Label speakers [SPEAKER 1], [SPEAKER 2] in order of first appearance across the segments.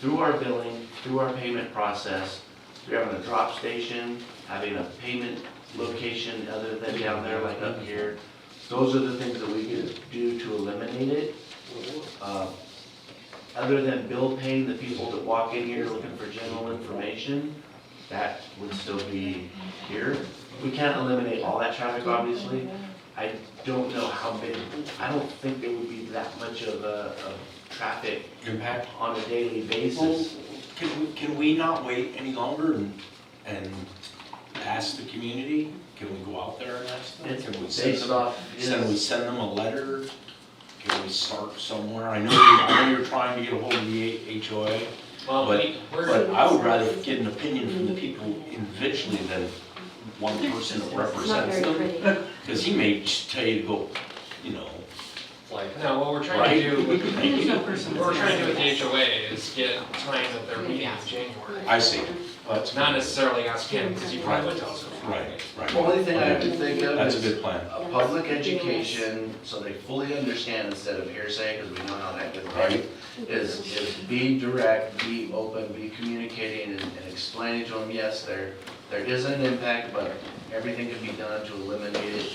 [SPEAKER 1] through our billing, through our payment process, through having a drop station, having a payment location other than down there like up here. Those are the things that we can do to eliminate it. Uh, Other than bill paying the people that walk in here looking for general information, that would still be here. We can't eliminate all that traffic, obviously. I don't know how big, I don't think there would be that much of a, of traffic
[SPEAKER 2] Impact?
[SPEAKER 1] on a daily basis.
[SPEAKER 2] Can we, can we not wait any longer and, and ask the community? Can we go out there and ask them?
[SPEAKER 1] It's
[SPEAKER 2] Can we send
[SPEAKER 1] based
[SPEAKER 2] them,
[SPEAKER 1] off
[SPEAKER 2] send, we
[SPEAKER 1] his,
[SPEAKER 2] send them a letter? Can we start somewhere? I know, you- I know you're trying to get a hold of the H- HOA,
[SPEAKER 3] Well,
[SPEAKER 2] But-
[SPEAKER 3] we- we're,
[SPEAKER 2] but I would rather get an opinion from the people individually than one person that
[SPEAKER 4] It's not
[SPEAKER 2] represents
[SPEAKER 4] very
[SPEAKER 2] them.
[SPEAKER 4] pretty.
[SPEAKER 2] Because he may just tell you to go, you know,
[SPEAKER 3] like, no, what we're trying to do, what
[SPEAKER 2] thank you.
[SPEAKER 3] we're trying to do with the HOA is get times at their meeting in January.
[SPEAKER 2] I see, but,
[SPEAKER 3] Not necessarily ask him, because he probably would tell us. before.
[SPEAKER 2] right, right.
[SPEAKER 1] only thing I can think of
[SPEAKER 2] That's a
[SPEAKER 1] is
[SPEAKER 2] good plan.
[SPEAKER 1] a public education, so they fully understand instead of hearsay, because we know how that gets right. Is, is be direct, be open, be communicating and and explaining to them, yes, there, there is an impact, but everything can be done to eliminate it,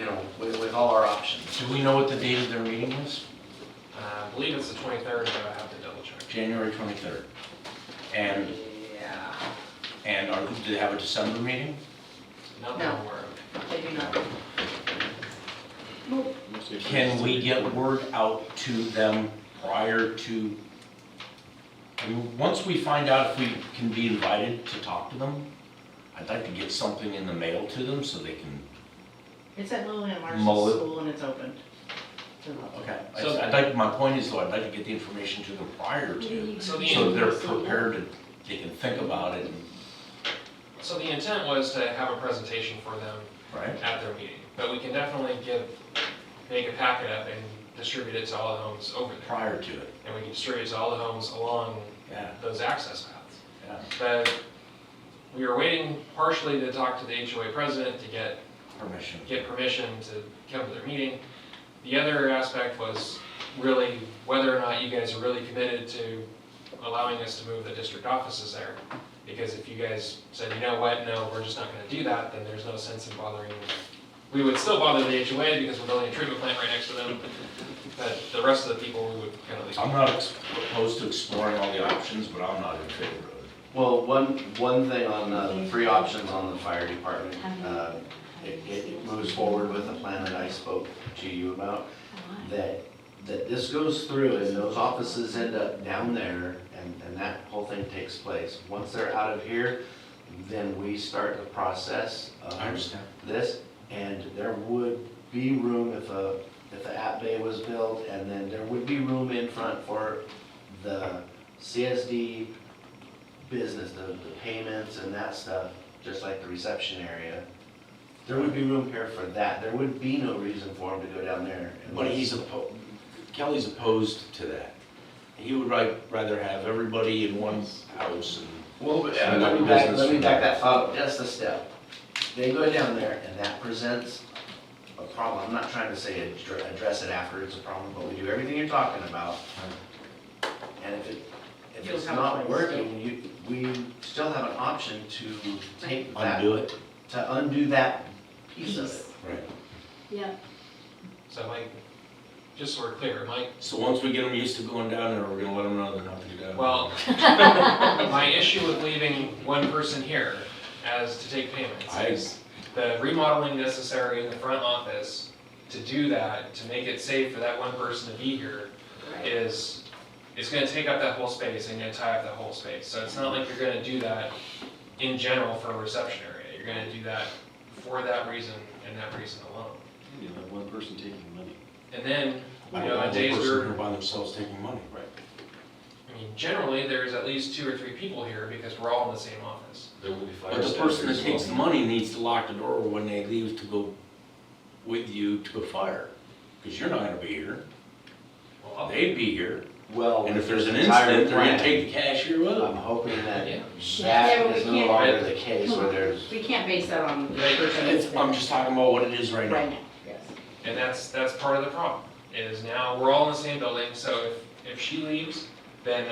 [SPEAKER 1] you know, with, with all our options.
[SPEAKER 2] Do we know what the date of their meeting is?
[SPEAKER 3] Uh, I believe it's the twenty-third, but I have to double check.
[SPEAKER 2] January 23rd. And,
[SPEAKER 3] Yeah.
[SPEAKER 2] and are, do they have a December meeting?
[SPEAKER 3] Not
[SPEAKER 5] No.
[SPEAKER 3] that word.
[SPEAKER 5] They do not.
[SPEAKER 2] Can we get word out to them prior to, I mean, once we find out if we can be invited to talk to them, I'd like to get something in the mail to them so they can,
[SPEAKER 5] It's at Lillian
[SPEAKER 2] Mull it.
[SPEAKER 5] Marshall School and it's open. to the public.
[SPEAKER 2] okay. I- I'd like, my point is though, I'd like to get the information to them prior to,
[SPEAKER 3] So
[SPEAKER 2] so
[SPEAKER 3] the,
[SPEAKER 2] they're prepared to, they can think about it, and-
[SPEAKER 3] so the intent was to have a presentation for them
[SPEAKER 2] right?
[SPEAKER 3] at their meeting, but we can definitely give, make a packet up and distribute it to all the homes over there.
[SPEAKER 2] Prior to it,
[SPEAKER 3] And we can distribute it to all the homes along
[SPEAKER 2] yeah,
[SPEAKER 3] those access paths.
[SPEAKER 2] yeah.
[SPEAKER 3] But we were waiting partially to talk to the HOA president to get,
[SPEAKER 2] Permission.
[SPEAKER 3] get permission to come to their meeting. The other aspect was really whether or not you guys are really committed to allowing us to move the district offices there. Because if you guys said, you know what, no, we're just not gonna do that, then there's no sense in bothering. We would still bother the HOA because we're building a treatment plant right next to them, but the rest of the people, we would kind of leave.
[SPEAKER 2] I'm not ex- opposed to exploring all the options, but I'm not in favor of it.
[SPEAKER 1] Well, one, one thing on uh, the free options on the fire department, uh, it, it moves forward with the plan that I spoke to you about, that, that this goes through and those offices end up down there and, and that whole thing takes place. Once they're out of here, then we start the process of
[SPEAKER 2] understand.
[SPEAKER 1] this, and there would be room if a, if the app bay was built, and then there would be room in front for the CSD business, the, the payments and that stuff, just like the reception area. There would be room here for that, there would be no reason for him to go down there.
[SPEAKER 2] But he's opposed, Kelly's opposed to that. He would ri- rather have everybody in one house and.
[SPEAKER 1] Well,
[SPEAKER 2] but-
[SPEAKER 1] let me back, let me back that up just a step. They go down there and that presents a problem, I'm not trying to say addre- address it after it's a problem, but we do everything you're talking about. And if it, if
[SPEAKER 5] You'll
[SPEAKER 1] it's
[SPEAKER 5] have a
[SPEAKER 1] not
[SPEAKER 5] place.
[SPEAKER 1] working, you, we still have an option to take that,
[SPEAKER 2] Undo it.
[SPEAKER 1] to undo that piece of it.
[SPEAKER 5] Peace.
[SPEAKER 2] Right.
[SPEAKER 4] Yeah,
[SPEAKER 3] So Mike, just so we're clear, Mike
[SPEAKER 2] So once we get them used to going down there, we're gonna let them know they're not gonna go down.
[SPEAKER 3] Well, my issue with leaving one person here as to take payments
[SPEAKER 2] I-
[SPEAKER 3] is the remodeling necessary in the front office to do that, to make it safe for that one person to be here
[SPEAKER 5] Right.
[SPEAKER 3] is, it's gonna take up that whole space and gonna tie up that whole space. So it's not like you're gonna do that in general for a reception area. You're gonna do that for that reason and that reason alone.
[SPEAKER 6] You have one person taking money.
[SPEAKER 3] And then,
[SPEAKER 2] I don't
[SPEAKER 3] you know,
[SPEAKER 2] want
[SPEAKER 3] on
[SPEAKER 2] one
[SPEAKER 3] days
[SPEAKER 2] person
[SPEAKER 3] where
[SPEAKER 2] here By themselves taking money. Right.
[SPEAKER 3] I mean, generally, there's at least two or three people here because we're all in the same office.
[SPEAKER 7] There will be fire
[SPEAKER 2] But the
[SPEAKER 7] staff
[SPEAKER 2] person
[SPEAKER 7] here
[SPEAKER 2] that
[SPEAKER 7] as
[SPEAKER 2] takes
[SPEAKER 7] well.
[SPEAKER 2] the money needs to lock the door when they leave to go with you to a fire. Cause you're not gonna be here.
[SPEAKER 3] Well, I'll-
[SPEAKER 2] They'd be here.
[SPEAKER 1] Well.
[SPEAKER 2] And if
[SPEAKER 1] with
[SPEAKER 2] there's an
[SPEAKER 1] this entire
[SPEAKER 2] incident, they're gonna
[SPEAKER 1] plan,
[SPEAKER 2] take the cashier with
[SPEAKER 1] I'm
[SPEAKER 2] them.
[SPEAKER 1] hoping that
[SPEAKER 3] Yeah.
[SPEAKER 1] that
[SPEAKER 5] Yeah,
[SPEAKER 1] is
[SPEAKER 5] we
[SPEAKER 1] no
[SPEAKER 5] can't-
[SPEAKER 1] longer the case where there's,
[SPEAKER 5] We can't base that on the
[SPEAKER 3] Right.
[SPEAKER 5] person that's
[SPEAKER 2] It's, I'm
[SPEAKER 5] there
[SPEAKER 2] just talking about what it is right
[SPEAKER 5] right
[SPEAKER 2] now.
[SPEAKER 5] now, yes.
[SPEAKER 3] And that's, that's part of the problem, is now we're all in the same building, so if, if she leaves, then